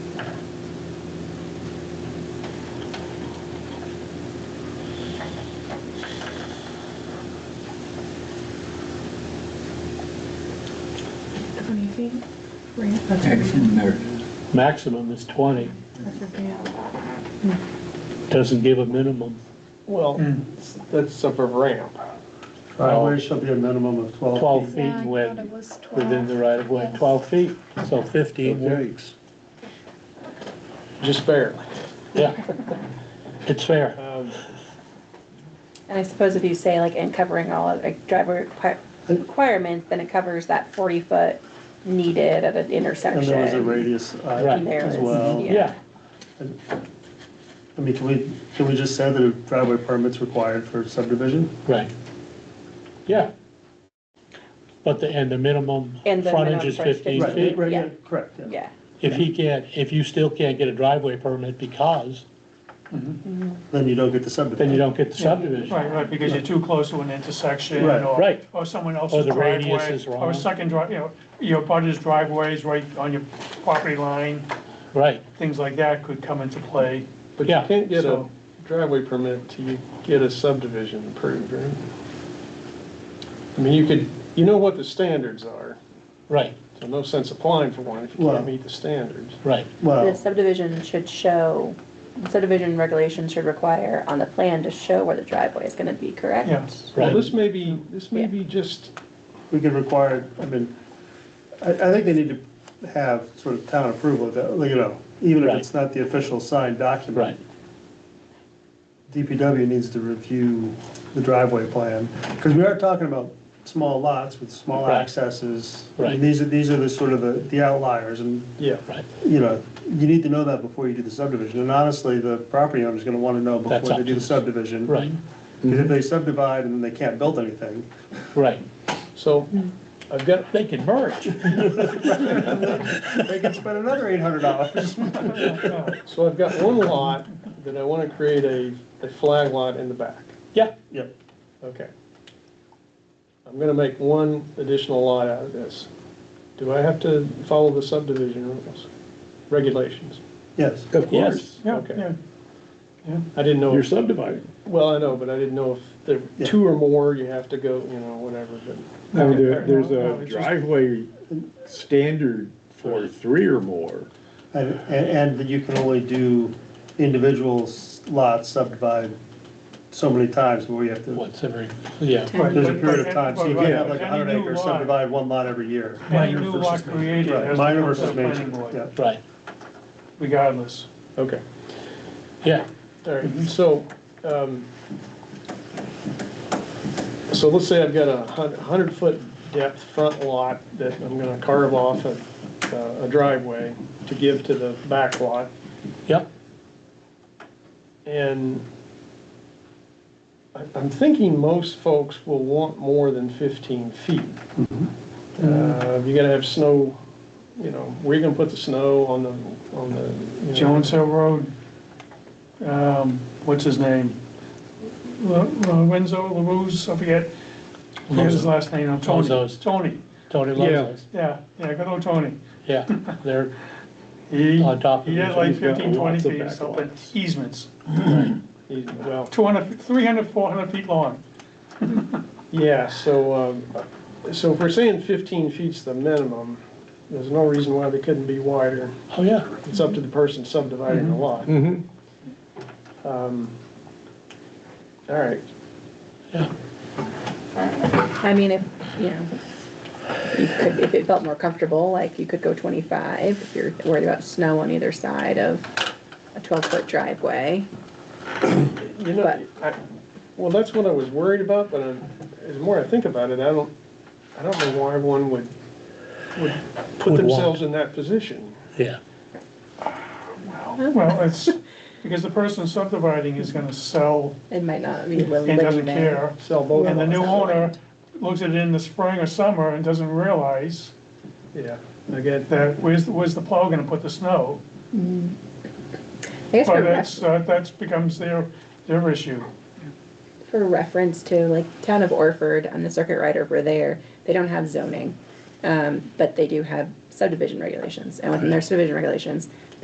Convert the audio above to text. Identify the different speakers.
Speaker 1: should be ramp up.
Speaker 2: Action there.
Speaker 3: Maximum is twenty,
Speaker 1: Yeah.
Speaker 3: doesn't give a minimum.
Speaker 4: Well, that's up a ramp.
Speaker 5: Driveway shall be a minimum of twelve
Speaker 3: Twelve
Speaker 5: feet.
Speaker 1: Yeah, I
Speaker 3: feet
Speaker 1: thought it
Speaker 3: within,
Speaker 1: was twelve.
Speaker 3: within the right of way,
Speaker 1: Yes.
Speaker 3: twelve feet, so fifteen
Speaker 5: Okay.
Speaker 3: works.
Speaker 4: Just barely.
Speaker 3: Yeah, it's fair.
Speaker 4: Um,
Speaker 6: And I suppose if you say like, and covering all of, like, driver requi- requirements, then it covers that forty foot needed
Speaker 5: And
Speaker 6: at an
Speaker 5: there was a
Speaker 6: intersection.
Speaker 5: radius uh,
Speaker 3: Right.
Speaker 6: There
Speaker 5: as
Speaker 6: is,
Speaker 5: well.
Speaker 6: yeah.
Speaker 3: Yeah,
Speaker 5: I mean, can we, can we just say that a driveway permit's required for subdivision?
Speaker 3: right. Yeah. But the, and the minimum
Speaker 6: And the
Speaker 3: frontage
Speaker 6: minimum
Speaker 3: is
Speaker 6: frontage.
Speaker 3: fifteen
Speaker 5: Right,
Speaker 3: feet.
Speaker 5: right,
Speaker 6: yeah.
Speaker 5: yeah, correct, yeah.
Speaker 6: Yeah,
Speaker 3: If he can't, if you still can't get a driveway permit because,
Speaker 5: Then you don't get
Speaker 3: then you
Speaker 5: the subdivision.
Speaker 3: don't get the subdivision.
Speaker 7: Right, right, because you're too close to an intersection
Speaker 5: Right.
Speaker 7: or.
Speaker 3: Right.
Speaker 7: Or someone
Speaker 3: Or
Speaker 7: else's
Speaker 3: the
Speaker 7: driveway.
Speaker 3: radius is wrong.
Speaker 7: Or second drive, you know, your buddy's driveways right on your property line,
Speaker 3: Right,
Speaker 7: things like that could come into play.
Speaker 4: But you
Speaker 3: Yeah,
Speaker 4: can't get a
Speaker 7: so-
Speaker 4: driveway permit till you get a subdivision approved, right? I mean, you could, you know what the standards are,
Speaker 3: right,
Speaker 4: so no sense applying for one if you
Speaker 5: Well-
Speaker 4: can't meet the standards.
Speaker 3: right.
Speaker 6: the
Speaker 5: Well,
Speaker 6: subdivision should show, subdivision regulations should require on the plan to show where the driveway is gonna be, correct?
Speaker 7: Yes.
Speaker 4: Well,
Speaker 3: Right.
Speaker 4: this may be, this may
Speaker 6: Yeah.
Speaker 4: be just,
Speaker 5: we could require, I mean, I, I think they need to have sort of town approval, of that, like, you know, even if
Speaker 3: Right.
Speaker 5: it's not the official signed document.
Speaker 3: Right.
Speaker 5: DPW needs to review the driveway plan, because we are talking about small lots with small
Speaker 3: Right.
Speaker 5: accesses.
Speaker 3: Right.
Speaker 5: And these are, these are the sort of the the outliers, and,
Speaker 4: yeah.
Speaker 3: Right,
Speaker 5: you know, you need to know that before you do the subdivision. And honestly, the property owner's gonna wanna know
Speaker 3: That's
Speaker 5: before they
Speaker 3: up
Speaker 5: do
Speaker 3: to
Speaker 5: the subdivision.
Speaker 3: right,
Speaker 5: Because if they subdivide and then they can't build anything,
Speaker 3: right.
Speaker 4: So I've got,
Speaker 3: They can merge.
Speaker 5: they can spend another eight hundred dollars.
Speaker 4: so I've got one lot that I want to create a, a flag lot in the back.
Speaker 3: Yeah,
Speaker 5: Yep,
Speaker 4: Okay. I'm gonna make one additional lot out of this. Do I have to follow the subdivision rules, regulations?
Speaker 5: yes.
Speaker 2: Of
Speaker 3: yes,
Speaker 7: Yeah,
Speaker 4: Okay.
Speaker 7: yeah.
Speaker 4: I didn't know,
Speaker 2: You're
Speaker 4: if-
Speaker 2: subdividing.
Speaker 4: well, I know, but I didn't know if there were two or more, you have to go, you know, whatever, but.
Speaker 2: I mean, there-
Speaker 7: No,
Speaker 2: there's
Speaker 7: no,
Speaker 2: a
Speaker 7: it's just-
Speaker 2: driveway standard for three or more.
Speaker 5: And, and and that you can only do individual s- lots subdivided so many times where you have to.
Speaker 3: once every, yeah.
Speaker 7: Right,
Speaker 5: There's a period
Speaker 7: but- but-
Speaker 5: of time, so you
Speaker 7: but-
Speaker 5: can't have
Speaker 7: but
Speaker 5: like a
Speaker 7: any
Speaker 5: hundred
Speaker 7: new
Speaker 5: acre
Speaker 7: lot-
Speaker 5: subdivide one lot every year.
Speaker 7: Any new lot created
Speaker 5: Right,
Speaker 7: has to
Speaker 5: minor
Speaker 7: come to the
Speaker 5: versus major,
Speaker 7: planning board,
Speaker 5: yeah.
Speaker 3: Right,
Speaker 7: regardless.
Speaker 4: Okay.
Speaker 3: yeah,
Speaker 4: All right, so, um, so let's say I've got a hundred foot depth front lot that I'm gonna carve off uh, a, a driveway to give to the back lot.
Speaker 3: yep,
Speaker 4: And I- I'm thinking most folks will want more than 15 feet. Uh, You gotta have snow, you know, where you gonna put the snow on the, on the. you know-
Speaker 7: Jones Hill Road, um, what's his name? Lo- Lorenzo LaRue's, I forget, I forget his last name, I'm Tony,
Speaker 3: Lozo's.
Speaker 7: Tony,
Speaker 3: Tony Lozo's,
Speaker 7: yeah, yeah, good old Tony.
Speaker 3: yeah, they're,
Speaker 7: He,
Speaker 3: On top of
Speaker 7: he had
Speaker 3: it,
Speaker 7: like
Speaker 2: he's got
Speaker 7: fifteen, twenty
Speaker 2: lots of
Speaker 7: feet of
Speaker 2: back
Speaker 7: something,
Speaker 2: lots.
Speaker 7: easements,
Speaker 4: Well,
Speaker 7: two hundred, three hundred, four hundred feet long.
Speaker 4: yeah, so, um, so if we're saying 15 feet's the minimum, there's no reason why they couldn't be wider.
Speaker 3: oh, yeah,
Speaker 4: It's up to the person subdividing the lot.
Speaker 2: Mm-hmm.
Speaker 4: Um, All right,
Speaker 3: yeah,
Speaker 6: I mean, if, you know, you could, if it felt more comfortable, like you could go twenty-five, if you're worried about snow on either side of a twelve-foot driveway.
Speaker 4: You know, I, well, that's what I was worried about, but uh, as more I think about it, I don't, I don't know why one would, would put
Speaker 3: Would want.
Speaker 4: themselves in that position.
Speaker 3: yeah,
Speaker 7: Well, it's, because the person subdividing is gonna sell
Speaker 6: It might not be willing
Speaker 7: and doesn't
Speaker 6: living there.
Speaker 7: care.
Speaker 4: Sell both,
Speaker 7: And the new
Speaker 6: Well,
Speaker 7: owner looks at it in the spring or summer and doesn't realize
Speaker 4: yeah, I get that.
Speaker 7: that, where's, where's the plow gonna put the snow?
Speaker 6: I guess
Speaker 7: So
Speaker 6: for,
Speaker 7: that's,
Speaker 6: ref-
Speaker 7: uh, that's becomes their, their issue.
Speaker 6: for reference to, like, town of Orford on the circuit rider over there, they don't have zoning. Um, but they do have subdivision regulations, and within their subdivision regulations,